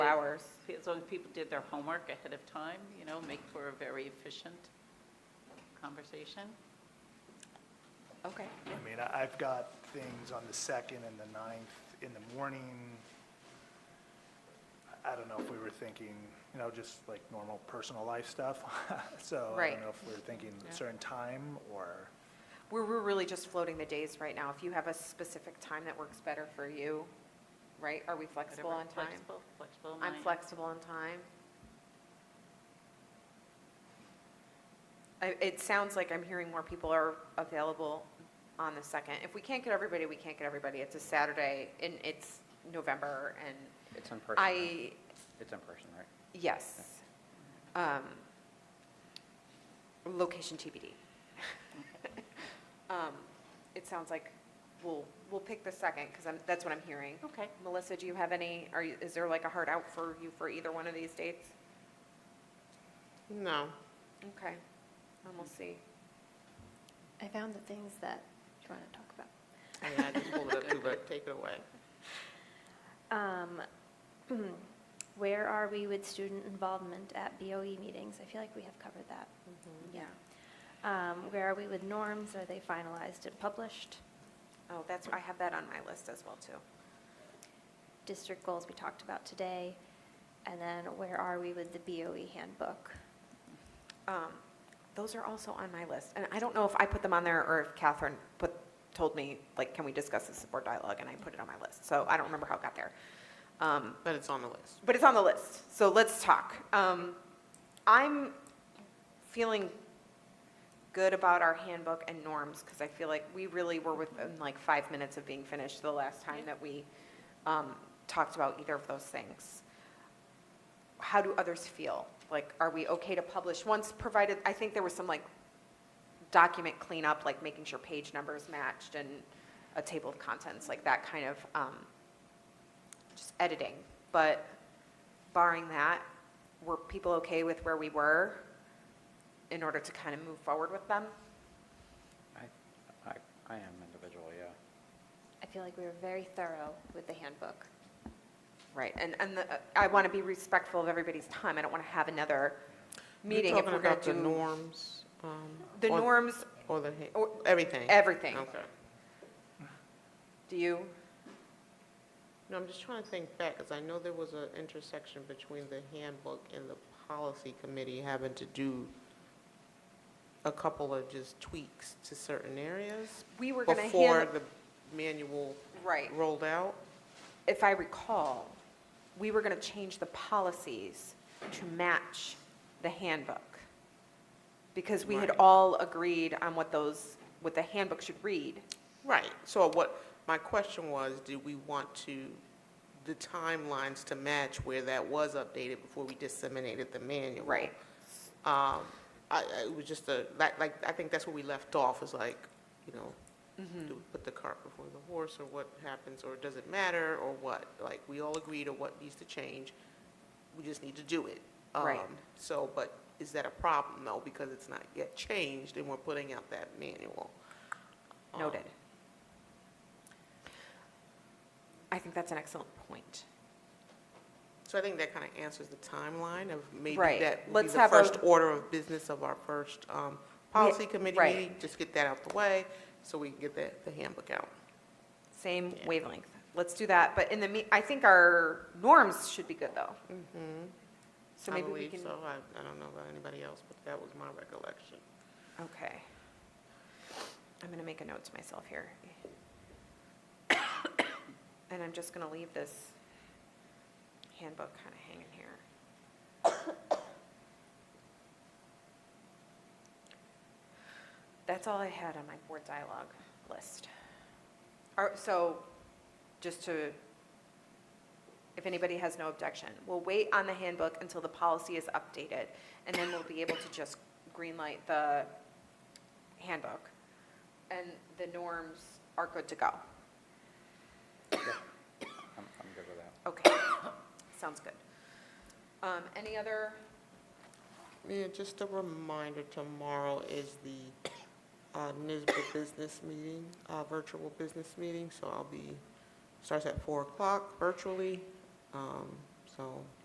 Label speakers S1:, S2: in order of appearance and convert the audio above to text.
S1: hours, as long as people did their homework ahead of time, you know, make for a very efficient conversation. Okay.
S2: I mean, I- I've got things on the 2nd and the 9th in the morning. I- I don't know if we were thinking, you know, just like normal personal life stuff. So I
S3: Right.
S2: don't know if we were thinking a certain time or,
S3: We're, we're really just floating the days right now. If you have a specific time that works better for you, right? Are we flexible
S1: Whatever.
S3: on time?
S1: Flexible, flexible
S3: I'm
S1: mind.
S3: flexible on time. I, it sounds like I'm hearing more people are available on the second. If we can't get everybody, we can't get everybody. It's a Saturday and it's November and
S4: It's in person. right?
S3: I,
S4: It's in person, right?
S3: yes. Um, Location TBD. Um, It sounds like we'll, we'll pick the second because I'm, that's what I'm hearing.
S1: Okay.
S3: Melissa, do you have any, are, you- is there like a hard out for you for either one of these dates?
S5: No.
S3: Okay, and we'll see.
S6: I found the things that you want to talk about.
S5: Yeah, I just pulled it up too, but take it away.
S6: Um, Where are we with student involvement at BOE meetings? I feel like we have covered that.
S5: Mm-hmm.
S6: Yeah. Um, Where are we with norms? Are they finalized and published?
S3: Oh, that's, I have that on my list as well, too.
S6: District goals we talked about today. And then where are we with the BOE handbook?
S3: Um, Those are also on my list, and I don't know if I put them on there or if Catherine put, told me, like, can we discuss this at board dialogue, and I put it on my list, so I don't remember how it got there. Um,
S5: But it's on the list.
S3: But it's on the list, so let's talk. Um, I'm feeling good about our handbook and norms, because I feel like we really were within like five minutes of being finished the last time that we um, talked about either of those things. How do others feel? Like, are we okay to publish once provided, I think there was some like document cleanup, like making sure page numbers matched and a table of contents, like that kind of um, just editing. But barring that, were people okay with where we were in order to kind of move forward with them?
S4: I, I, I am individual, yeah.
S6: I feel like we were very thorough with the handbook.
S3: Right, and, and the- I want to be respectful of everybody's time. I don't want to have another meeting
S5: You're
S3: if
S5: talking
S3: we're going
S5: about
S3: to
S5: the
S3: do
S5: norms. um,
S3: the
S5: or-
S3: norms,
S5: Or the, he-
S3: or-
S5: everything.
S3: everything.
S5: Okay.
S3: Do you?
S5: No, I'm just trying to think back, because I know there was an intersection between the handbook and the policy committee having to do a couple of just tweaks to certain areas
S3: We were going to
S5: before
S3: handle,
S5: the manual
S3: right.
S5: rolled out.
S3: If I recall, we were going to change the policies to match the handbook. Because we had
S5: Right.
S3: all agreed on what those, what the handbook should read.
S5: Right, so what, my question was, do we want to, the timelines to match where that was updated before we disseminated the manual?
S3: Right.
S5: Um, I, I- it was just a, like, like, I think that's where we left off, is like, you know,
S3: Mm-hmm.
S5: do we put the cart before the horse, or what happens, or does it matter, or what? Like, we all agreed on what needs to change, we just need to do it.
S3: Right.
S5: Um, So, but is that a problem, though, because it's not yet changed, and we're putting out that manual? Um,
S3: Noted. I think that's an excellent point.
S5: So I think that kind of answers the timeline of maybe
S3: Right.
S5: that would be
S3: Let's
S5: the
S3: have a-
S5: first order of business of our first um, policy committee
S3: right.
S5: meeting. Just get that out the way so we can get the, the handbook out.
S3: Same
S5: Yeah.
S3: wavelength. Let's do that, but in the, me- I think our norms should be good, though. So
S5: Mm-hmm. I
S3: maybe we
S5: believe
S3: can,
S5: so. I, I don't know about anybody else, but that was my recollection.
S3: okay. I'm going to make a note to myself here. And I'm just going to leave this handbook kind of hanging here. That's all I had on my board dialogue list. Are- So, just to, if anybody has no objection, we'll wait on the handbook until the policy is updated, and then we'll be able to just greenlight the handbook, and the norms are good to go.
S4: I'm, I'm good with that.
S3: Okay, sounds good. Um, Any other,
S5: Yeah, just a reminder, tomorrow is the uh, NISBA business meeting, uh, virtual business meeting, so I'll be, starts at 4 o'clock virtually. Um, So so.